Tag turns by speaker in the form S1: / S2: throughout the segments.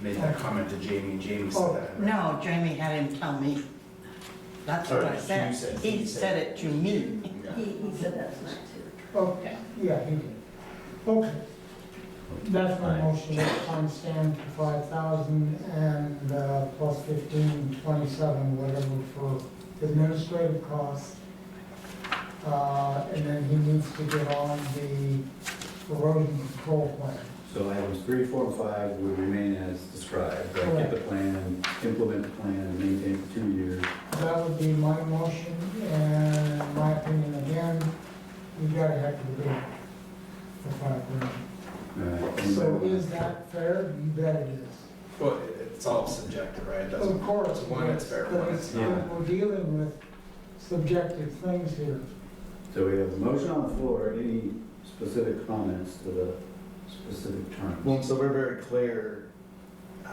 S1: made that comment to Jamie, and Jamie said
S2: Oh,
S1: that. right?
S2: no, Jamie had him tell me. That's what
S1: Sorry,
S2: I
S1: you
S2: said.
S1: said-
S2: He
S1: you
S2: said
S1: said-
S2: it to me.
S1: Yeah.
S3: He, he said that tonight too.
S4: Oh, yeah, he did. Okay. That's my
S5: Aye.
S4: motion, time stand for five thousand and uh, plus fifteen, twenty-seven, whatever for administrative costs. Uh, And then he needs to get on the erosion control plan.
S5: So items three, four, and five would remain as described, right? Get the plan, implement the plan, and maintain for two years.
S4: That would be my motion, and my opinion again, we gotta have to do it for five grand.
S5: Uh,
S4: So
S5: anybody-
S4: is that fair? You bet it is.
S1: Well, it- it's all subjective, right? That's
S4: Of course.
S1: One, it's fair,
S4: but
S1: one, it's
S4: it's-
S5: not.
S4: We're dealing with subjective things here.
S5: So we have a motion on the floor, any specific comments to the specific
S1: Well,
S5: terms?
S1: so we're very clear, um,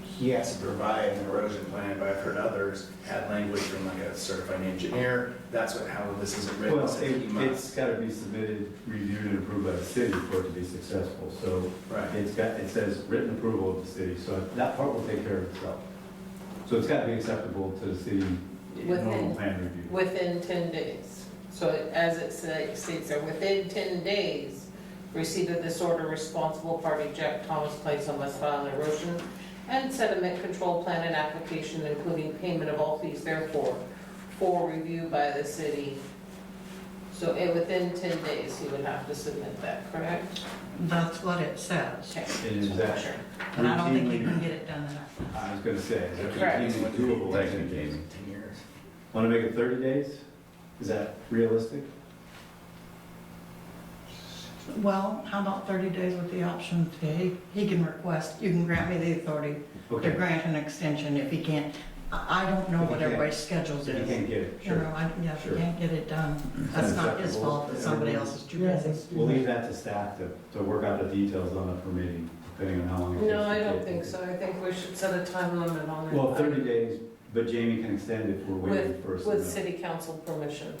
S1: he has to provide an erosion plan, but I've heard others had language from like a certified engineer, that's what, how this is written.
S5: Well,
S1: so
S5: it-
S1: he must-
S5: it's got to be submitted, reviewed, and approved by the city for it to be successful. So
S1: Right,
S5: it's got, it says written approval of the city, so that part will take care of itself. So it's got to be acceptable to the city in normal
S6: Within-
S5: plan review.
S6: Within 10 days. So as it sa- states there, within 10 days, receipt of this order, responsible party Jack Thomas Clason must file an erosion and sediment control plan and application, including payment of all fees therefore, for review by the city. So eh, within 10 days, he would have to submit that, correct?
S2: That's what it says.
S6: Okay.
S5: It is that.
S2: And I don't think you
S5: Routinely-
S2: can get it done in that.
S5: I was gonna say, is that
S6: Correct.
S5: routinely doable, like, in Jamie?
S1: Ten years.
S5: Wanna make it thirty days? Is that realistic?
S2: Well, how about 30 days with the option to, he- he can request, you can grant me the authority to
S5: Okay,
S2: grant an extension if he can't. I I don't know
S5: If he
S2: what
S5: can't.
S2: everybody's schedules
S5: so you
S2: is.
S5: can't get it,
S2: You know,
S5: sure.
S2: I, yeah, if you
S5: Sure.
S2: can't get it done, that's not his
S5: Acceptable.
S2: fault, it's somebody else's too
S4: Yeah,
S2: busy.
S4: let's do
S5: We'll
S4: that.
S5: leave that to staff to, to work out the details on the permitting, depending on how long it takes.
S6: No, I
S5: to
S6: don't
S5: get-
S6: think so. I think we should set a time limit on it.
S5: Well, thirty days, but Jamie can extend if we're waiting for some.
S6: With city council permission.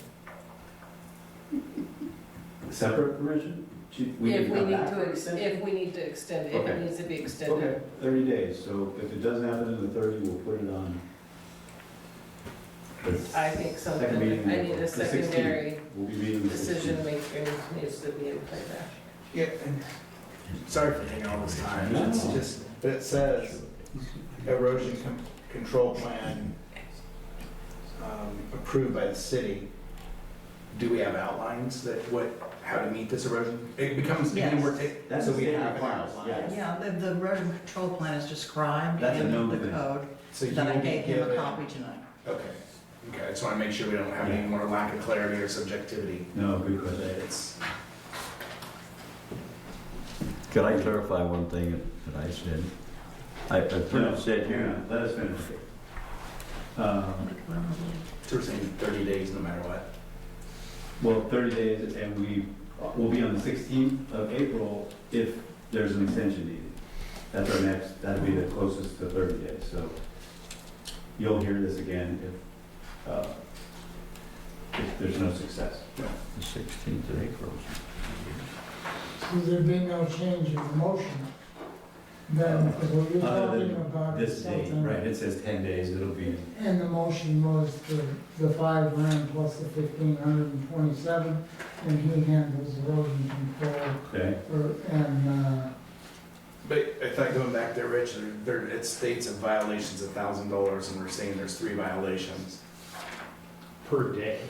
S5: Separate permission? She-
S6: If we
S5: come
S6: need
S5: back for
S6: to, ex-
S5: extension?
S6: if we need to extend it, if it
S5: Okay.
S6: needs to be extended.
S5: Okay, thirty days, so if it doesn't happen in the thirty, we'll put it on. the
S6: I think something,
S5: second meeting in
S6: I need
S5: April,
S6: a
S5: the 16th.
S6: secondary
S5: We'll be meeting the
S6: decision
S5: 16th.
S6: making needs to be in play there.
S1: Yeah, and sorry for taking all this time, it's
S5: No.
S1: just, but it says erosion con- control plan um, approved by the city. Do we have outlines that what, how to meet this erosion? It becomes,
S2: Yes.
S1: and we're, it-
S5: That's
S1: so
S5: a
S1: we
S5: state
S1: have an
S5: requirement,
S1: outline.
S5: yes.
S2: Yeah, the, the erosion control plan is described
S5: That's a
S2: in
S5: known
S2: the
S5: thing.
S2: code
S1: So you
S2: that I
S1: will be
S2: gave him a
S1: given-
S2: copy tonight.
S1: Okay, okay, I just want to make sure we don't have any more lack of clarity or subjectivity.
S5: No, good
S1: But
S5: question.
S1: it's,
S7: Could I clarify one thing that- that I said? I, I pretty
S5: No,
S7: much said
S5: hang
S7: here,
S5: on, let us finish. Um,
S1: so we're saying 30 days no matter what.
S5: Well, 30 days, and we will be on the 16th of April if there's an extension needed. That's our next, that'll be the closest to 30 days, so you'll hear this again if, uh, if there's no success.
S7: the 16th of April.
S4: So there'd be no change in the motion, then, because what you're
S5: Other than
S4: talking about
S5: This
S4: is
S5: date,
S4: something.
S5: right, it says 10 days, it'll be,
S4: And the motion was the, the five grand plus the fifteen hundred and twenty-seven, and he handles erosion control,
S5: okay?
S4: or, and, uh,
S1: But I thought going back there, Rich, there, there- it states a violation's a thousand dollars, and we're saying there's three violations.
S8: per day.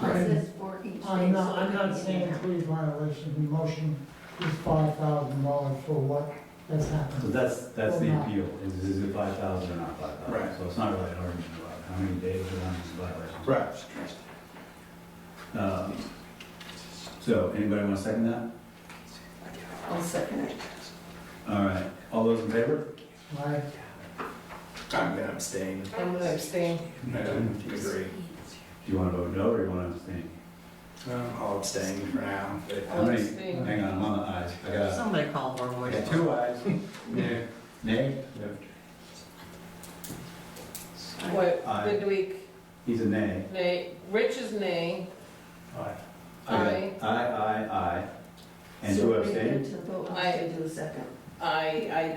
S4: Right.
S3: It says for each day.
S4: Oh, I'm not,
S3: so
S4: I'm
S3: it
S4: not
S3: can be
S4: saying
S3: an hour.
S4: three violation, the motion is five thousand dollars for what has
S5: So
S4: happened.
S5: that's, that's the appeal, is is it 5,000 or not 5,000?
S1: Right.
S5: So it's not really an argument about how many days or how many violations.
S1: Right.
S5: Uh, So, anybody want to second that?
S3: I'll second it.
S5: All right, all those in favor?
S4: I
S1: I'm gonna abstain.
S6: I'm gonna abstain.
S1: I don't agree.
S5: Do you want to vote no or you want to abstain?
S1: Um, I'll abstain for now, but.
S5: How
S6: I'll
S5: many-
S6: abstain.
S5: Hang on, I'm on the eyes. I got,
S2: Somebody call for a
S5: I
S2: voice.
S5: got two eyes.
S1: Yeah.
S5: Nay?
S6: What,
S5: Aye.
S6: midweek,
S5: He's a nay.
S6: nay, Rich is nay,
S8: Aye.
S5: I got
S6: Aye.
S5: Aye, aye, aye. And
S3: So
S5: two
S3: we're
S5: abstain?
S3: good To vote,
S6: Aye.
S3: I do a second.
S6: I, I